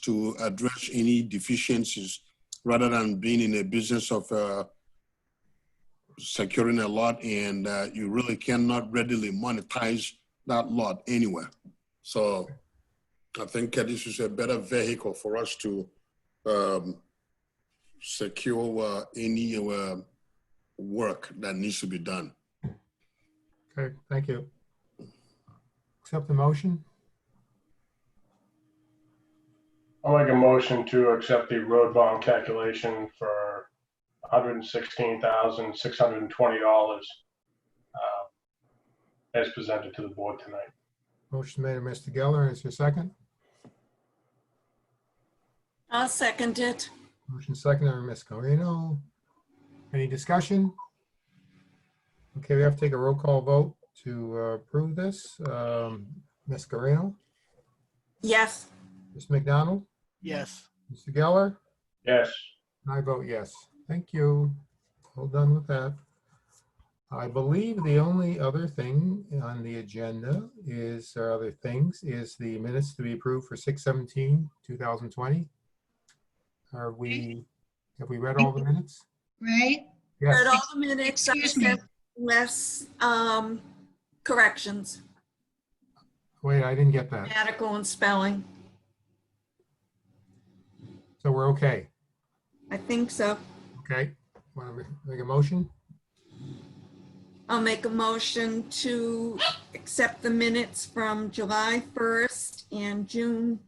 to address any deficiencies rather than being in a business of uh, securing a lot and uh, you really cannot readily monetize that lot anywhere. So I think uh, this is a better vehicle for us to um, secure uh, any uh, work that needs to be done. Okay, thank you. Accept the motion? I'll make a motion to accept the road bond calculation for $116,620 uh, as presented to the board tonight. Motion made by Mr. Geller. Is there a second? I'll second it. Motion seconded by Ms. Carino. Any discussion? Okay, we have to take a roll call vote to uh, approve this. Um, Ms. Carino, Yes. Ms. McDonald, Yes. Mr. Geller, Yes, and I vote yes. Thank you. All done with that. I believe the only other thing on the agenda is, or other things, is the minutes to be approved for 6/17, 2020. Are we, have we read all the minutes? right? Yes. Heard all the minutes, I Excuse me. said less um, corrections, Wait, I didn't get that. grammatical and spelling. So we're okay. I think so. Okay. Want to make a motion? I'll make a motion to accept the minutes from July 1st and June,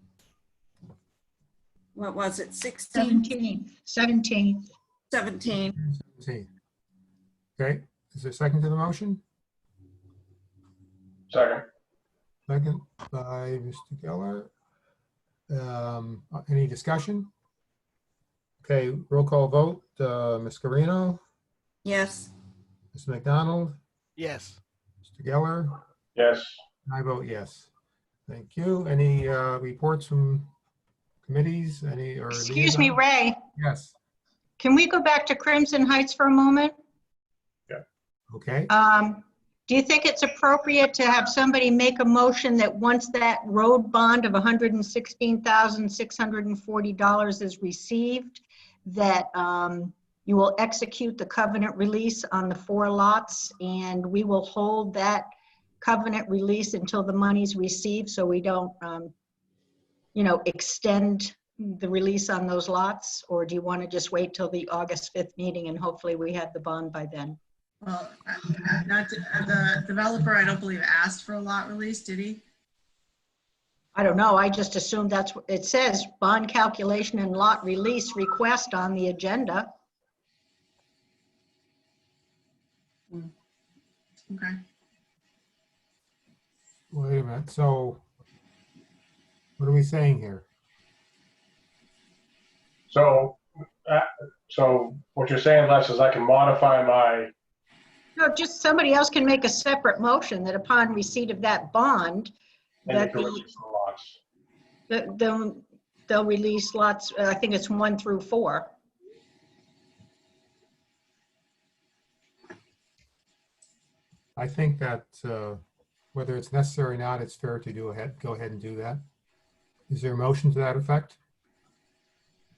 what was it, 16, 17th, 17th. 17? See. Okay. Is there a second to the motion? second. Second by Mr. Geller. Um, Any discussion? Okay, roll call vote. Uh, Ms. Carino, Yes. Ms. McDonald, Yes. Mr. Geller, Yes, and I vote yes. Thank you. Any uh, reports from committees? Any or? Excuse me, Ray, Yes. can we go back to Crimson Heights for a moment? Okay. Um, Do you think it's appropriate to have somebody make a motion that once that road bond of $116,640 is received, that um, you will execute the covenant release on the four lots, and we will hold that covenant release until the money's received, so we don't, um, you know, extend the release on those lots? Or do you want to just wait till the August 5th meeting, and hopefully we have the bond by then? Well, I- I'm not, uh, the developer, I don't believe, asked for a lot release, did he? I don't know, I just assumed that's, what it says bond calculation and lot release request on the agenda. Okay. Wait a minute, so what are we saying here? so, uh, so what you're saying, Les, is I can modify my, No, just somebody else can make a separate motion that upon receipt of that bond, and you that can the, release the lots. that they'll, they'll release lots, uh, I think it's one through four. I think that uh, whether it's necessary or not, it's fair to do ahead, go ahead and do that. Is there a motion to that effect?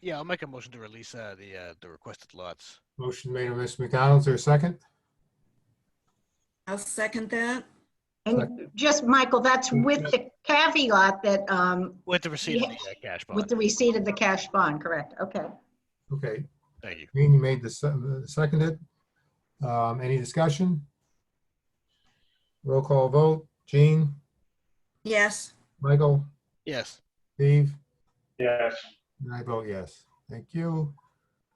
Yeah, I'll make a motion to release uh, the uh, the requested lots. Motion made by Mr. McDonald, is there a second? I'll second that. And just, Michael, that's with the caveat that, um, With the receipt of the uh, cash with bond. the receipt of the cash bond, correct, okay. Okay, Thank you. Green, you made the se- uh, seconded. Um, Any discussion? Roll call vote, Jean, Yes. Michael, Yes. Steve, Yes, and I vote yes. Thank you.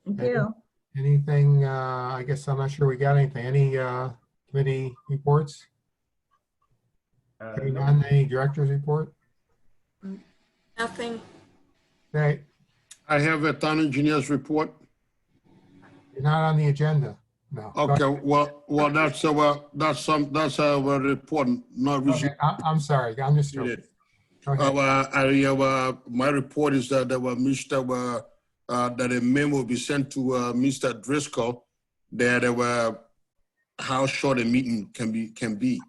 Thank Okay. you. Anything, uh, I guess I'm not sure we got anything, any uh, committee reports? Uh, Hearing none, Any directors report? Nothing. Okay, I have a town engineer's report. you're not on the agenda, no. Okay, well, well, that's our, that's some, that's our report, not Okay, received. I- I'm sorry, I'm just. Yes. Go ahead. Our, I, our, my report is that our Mr., uh, uh, that a memo will be sent to, uh, Mr. Driscoll that, uh, how short a meeting can be, can be.